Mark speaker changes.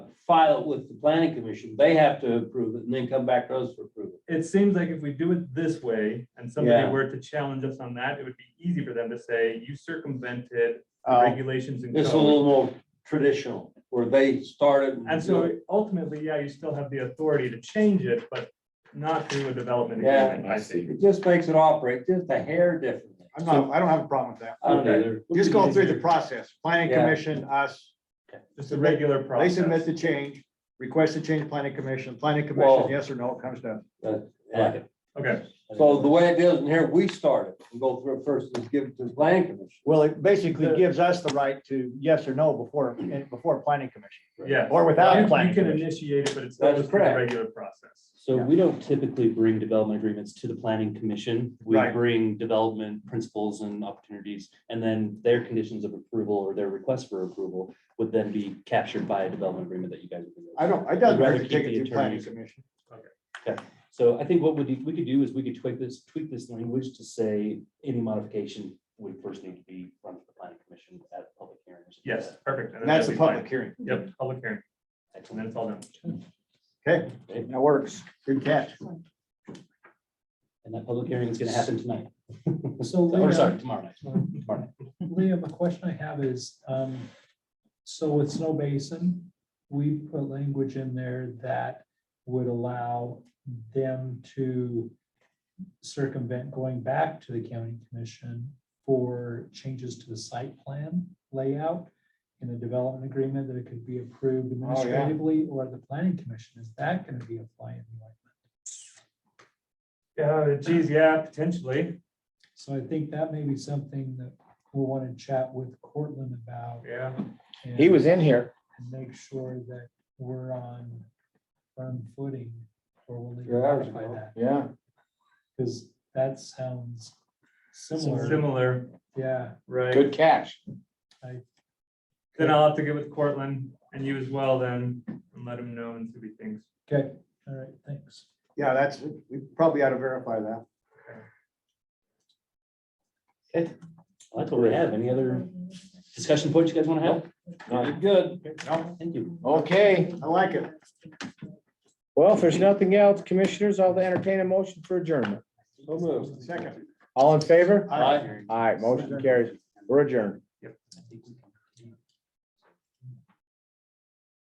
Speaker 1: file it with the planning commission, they have to approve it and then come back to us for approval.
Speaker 2: It seems like if we do it this way and somebody
Speaker 1: Yeah.
Speaker 2: were to challenge us on that, it would be easy for them to say, you circumvented the
Speaker 3: Oh,
Speaker 1: Uh,
Speaker 2: regulations and
Speaker 1: This is a
Speaker 2: code.
Speaker 1: little more traditional, where they started.
Speaker 2: And so ultimately, yeah, you still have the authority to change it, but not through a development.
Speaker 1: Yeah.
Speaker 2: agreement.
Speaker 4: I see.
Speaker 1: It just makes it operate just a hair differently.
Speaker 3: I'm not, I don't have a problem with that.
Speaker 1: I don't either.
Speaker 3: Just going through the process, planning
Speaker 1: Yeah.
Speaker 3: commission, us,
Speaker 2: Just a regular
Speaker 3: they
Speaker 2: process.
Speaker 3: submit the change, request the change, planning commission, planning
Speaker 1: Well-
Speaker 3: commission, yes or no, it comes down.
Speaker 1: Yeah.
Speaker 2: Okay,
Speaker 1: So the way it is in here, we start it and go through it first and give it to the planning commission.
Speaker 3: Well, it basically
Speaker 2: The-
Speaker 3: gives us the right to yes or no before, and before planning commission,
Speaker 2: yeah.
Speaker 3: or
Speaker 2: You
Speaker 3: without
Speaker 2: you
Speaker 3: planning
Speaker 2: can
Speaker 3: commission.
Speaker 2: initiate it, but
Speaker 1: That's
Speaker 2: it's still just through the
Speaker 1: correct.
Speaker 2: regular process.
Speaker 5: So
Speaker 3: Yeah.
Speaker 5: we don't typically bring development agreements to the planning commission. We
Speaker 3: Right.
Speaker 5: bring development principles and opportunities, and then their conditions of approval or their request for approval would then be captured by a development agreement that you guys. would do.
Speaker 3: I don't, I don't
Speaker 5: Rather
Speaker 3: really take
Speaker 5: keep
Speaker 3: it
Speaker 5: the
Speaker 3: to planning
Speaker 5: attorneys.
Speaker 3: commission.
Speaker 5: So I think what we, we could do is we could tweak this, tweak this language to say any modification would first need to be run to the planning commission at a public hearing. or something like
Speaker 2: Yes,
Speaker 5: that.
Speaker 2: perfect. and
Speaker 3: And
Speaker 2: that'll
Speaker 3: that's the
Speaker 2: be fine.
Speaker 3: public hearing.
Speaker 2: Yep, public hearing, and then
Speaker 5: Excellent.
Speaker 2: it's all done.
Speaker 3: Okay,
Speaker 5: Okay,
Speaker 3: that works. Good catch.
Speaker 5: And that public hearing is gonna happen tonight,
Speaker 6: So
Speaker 5: or sorry,
Speaker 6: Liam,
Speaker 5: tomorrow night.
Speaker 6: Liam, a question I have is, um, so with Snow Basin, we put language in there that would allow them to circumvent going back to the county commission for changes to the site plan layout in the development agreement that it could be
Speaker 5: Oh,
Speaker 6: approved
Speaker 3: yeah.
Speaker 6: administratively or the planning commission. Is that going to be a fly in the ointment?
Speaker 2: Yeah, geez, yeah, potentially,
Speaker 6: So I think that may be something that we'll want to chat with Cortland about.
Speaker 2: yeah.
Speaker 6: and-
Speaker 3: He was in here.
Speaker 6: and make sure that we're on firm footing or we'll need to
Speaker 1: Your hours
Speaker 6: modify
Speaker 1: ago.
Speaker 6: that,
Speaker 3: Yeah.
Speaker 6: because that sounds similar.
Speaker 2: Similar,
Speaker 6: Yeah,
Speaker 2: right?
Speaker 3: Good catch.
Speaker 2: Then I'll have to get with Cortland and you as well then, and let him know and see what he thinks.
Speaker 6: okay, all right, thanks.
Speaker 3: Yeah, that's, we probably ought to verify that.
Speaker 5: Well, That's what we have. Any other discussion points you guys wanna have?
Speaker 1: Good.
Speaker 5: Thank you.
Speaker 3: Okay. I like it.
Speaker 7: Well, if there's nothing else, commissioners, I'll entertain a motion for adjournment.
Speaker 1: So moved.
Speaker 3: Second.
Speaker 7: All in favor?
Speaker 3: Aye.
Speaker 7: All right, motion carries. We're adjourned.
Speaker 5: I think we can-